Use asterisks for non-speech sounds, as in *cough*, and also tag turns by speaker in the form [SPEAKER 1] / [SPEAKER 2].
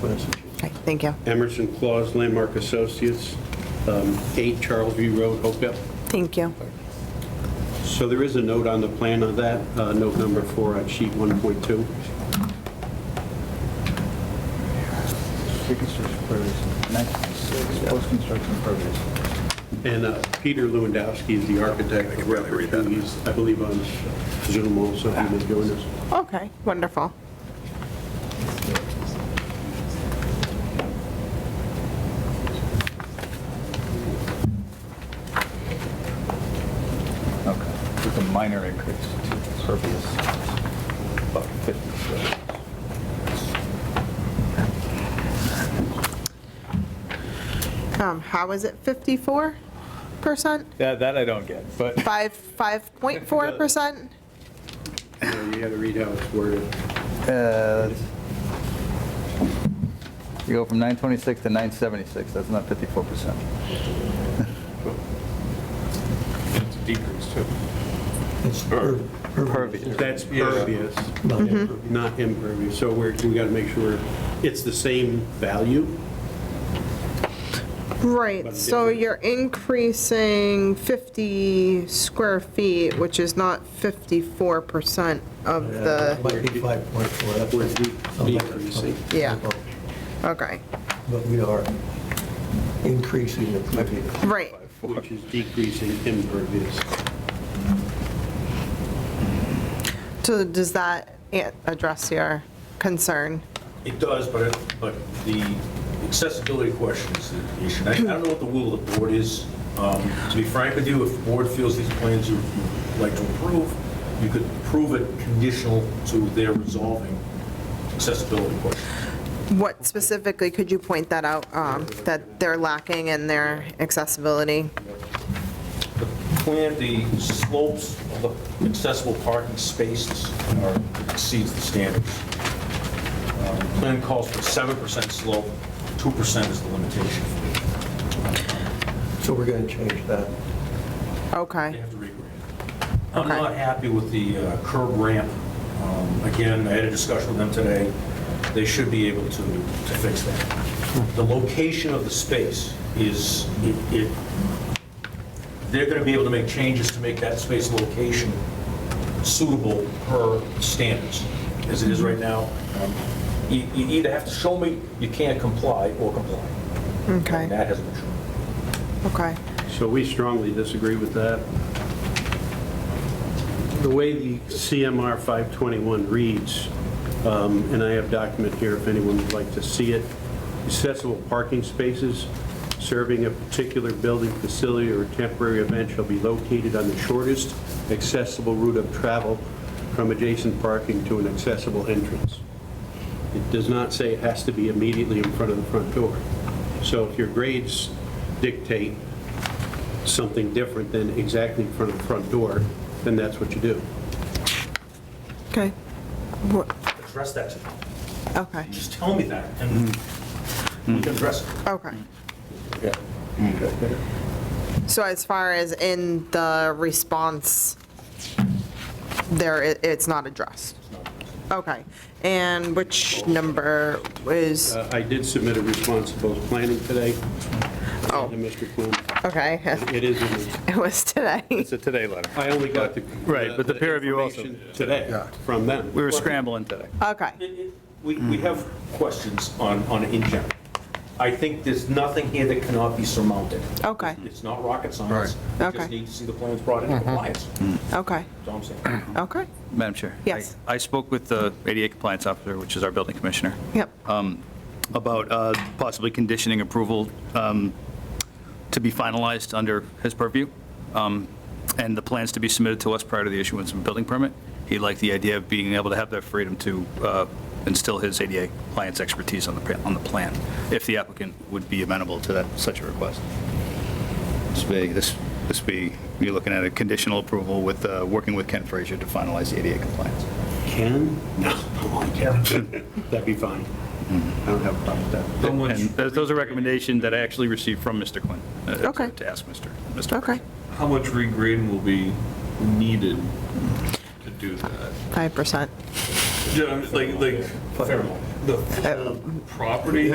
[SPEAKER 1] Okay, Thank you.
[SPEAKER 2] Emerson Claus Landmark Associates, um, 8 Charles View Road, Hopewell.
[SPEAKER 1] Thank you.
[SPEAKER 2] So there is a note on the plan of that, uh, note number four on sheet 1.2.
[SPEAKER 3] Pre-construction impervious, next, post-construction impervious.
[SPEAKER 2] And uh, Peter Lewandowski is the architect of record, who he's, I believe, on Zoom also, he was doing this.
[SPEAKER 1] Okay, wonderful.
[SPEAKER 3] Okay, with a minor increase to impervious, about 50 square.
[SPEAKER 1] Um, How is it 54%?
[SPEAKER 3] That, that I don't get, but
[SPEAKER 1] 5, 5.4%?
[SPEAKER 2] Uh, You had to read how it's worded.
[SPEAKER 3] *laughs* uh, you go from 926 to 976, that's not 54%.
[SPEAKER 4] It's a decrease too.
[SPEAKER 5] It's per-
[SPEAKER 3] Pervious.
[SPEAKER 2] That's pervious,
[SPEAKER 5] not impervious.
[SPEAKER 2] not impervious. So we're, we got to make sure it's the same value.
[SPEAKER 1] Right,
[SPEAKER 2] But
[SPEAKER 1] so
[SPEAKER 2] different.
[SPEAKER 1] you're increasing 50 square feet, which is not 54% of
[SPEAKER 5] Yeah, it
[SPEAKER 1] the,
[SPEAKER 5] Might be 5.4, that's
[SPEAKER 2] We're
[SPEAKER 5] what
[SPEAKER 2] de-
[SPEAKER 5] sounds like a
[SPEAKER 2] decreasing.
[SPEAKER 5] typo.
[SPEAKER 1] Yeah. okay,
[SPEAKER 5] But we are increasing the previous.
[SPEAKER 1] right,
[SPEAKER 2] Which is decreasing impervious.
[SPEAKER 1] so does that a- address your concern?
[SPEAKER 6] It does, but, it- but the accessibility question is the issue. And I I don't know what the will of the board is. Um, To be frank with you, if the board feels these plans you- you'd like to approve, you could approve it conditional to their resolving accessibility question.
[SPEAKER 1] What specifically, could you point that out, um, that they're lacking in their accessibility?
[SPEAKER 6] Plan, the slopes of the accessible parking spaces are, exceeds the standards. Um, Plan calls for 7% slope, 2% is the limitation.
[SPEAKER 5] So we're going to change that.
[SPEAKER 6] They
[SPEAKER 1] Okay,
[SPEAKER 6] have to regrade. I'm
[SPEAKER 1] Okay.
[SPEAKER 6] not happy with the uh, curb ramp. Um, Again, I had a discussion with them today. They should be able to, to fix that. The location of the space is, it- it, they're going to be able to make changes to make that space location suitable per standards, as it is right now. Um, You, you either have to show me you can't comply or comply.
[SPEAKER 1] Okay.
[SPEAKER 6] And that hasn't been shown.
[SPEAKER 1] okay.
[SPEAKER 2] So we strongly disagree with that. The way the CMR 521 reads, um, and I have document here if anyone would like to see it, accessible parking spaces serving a particular building, facility, or temporary event shall be located on the shortest accessible route of travel from adjacent parking to an accessible entrance. It does not say it has to be immediately in front of the front door. So if your grades dictate something different than exactly in front of the front door, then that's what you do.
[SPEAKER 1] Okay. Wha-
[SPEAKER 6] Address that to them.
[SPEAKER 1] Okay,
[SPEAKER 6] Just tell me that, and we can address it.
[SPEAKER 1] okay. So as far as in the response, there, i- it's not addressed? Okay, and which number is,
[SPEAKER 2] Uh, I did submit a response to both planning today
[SPEAKER 1] Oh.
[SPEAKER 2] and to Mr. Quinn.
[SPEAKER 1] okay, *laughs*
[SPEAKER 2] It is, in the-
[SPEAKER 1] it was today.
[SPEAKER 3] It's a today letter.
[SPEAKER 2] I only got the.
[SPEAKER 3] Right, but the peer review also-
[SPEAKER 2] information Today, from them.
[SPEAKER 3] We were scrambling today.
[SPEAKER 1] Okay,
[SPEAKER 6] It- it- We, we have questions on, on it in general. I think there's nothing here that cannot be surmounted.
[SPEAKER 1] Okay.
[SPEAKER 6] It's not rocket science. We
[SPEAKER 1] Okay.
[SPEAKER 6] just need to see the plans brought into compliance. That's
[SPEAKER 1] okay,
[SPEAKER 6] all I'm saying.
[SPEAKER 1] okay,
[SPEAKER 3] Madam Chair?
[SPEAKER 1] Yes.
[SPEAKER 3] I I spoke with the ADA Compliance Officer, which is our building commissioner.
[SPEAKER 1] yep,
[SPEAKER 3] Um, about uh, possibly conditioning approval um, to be finalized under his purview, um, and the plans to be submitted to us prior to the issuance of a building permit. He liked the idea of being able to have that freedom to uh, instill his ADA compliance expertise on the, pa- on the plan, if the applicant would be amenable to that, such a request. This be, this this be, you're looking at a conditional approval with, uh, working with Ken Frazier to finalize the ADA compliance.
[SPEAKER 2] Can? No, *laughs* I can't. That'd be fine. I don't have a problem with that.
[SPEAKER 3] And those those are recommendations that I actually received from Mr. Quinn. uh, to-
[SPEAKER 1] Okay.
[SPEAKER 3] To ask Mr. Mr.
[SPEAKER 1] okay,
[SPEAKER 4] How much regrading will be needed to do that?
[SPEAKER 1] 5%.
[SPEAKER 4] Yeah, I'm just like, like,
[SPEAKER 6] Fair enough.
[SPEAKER 4] the full property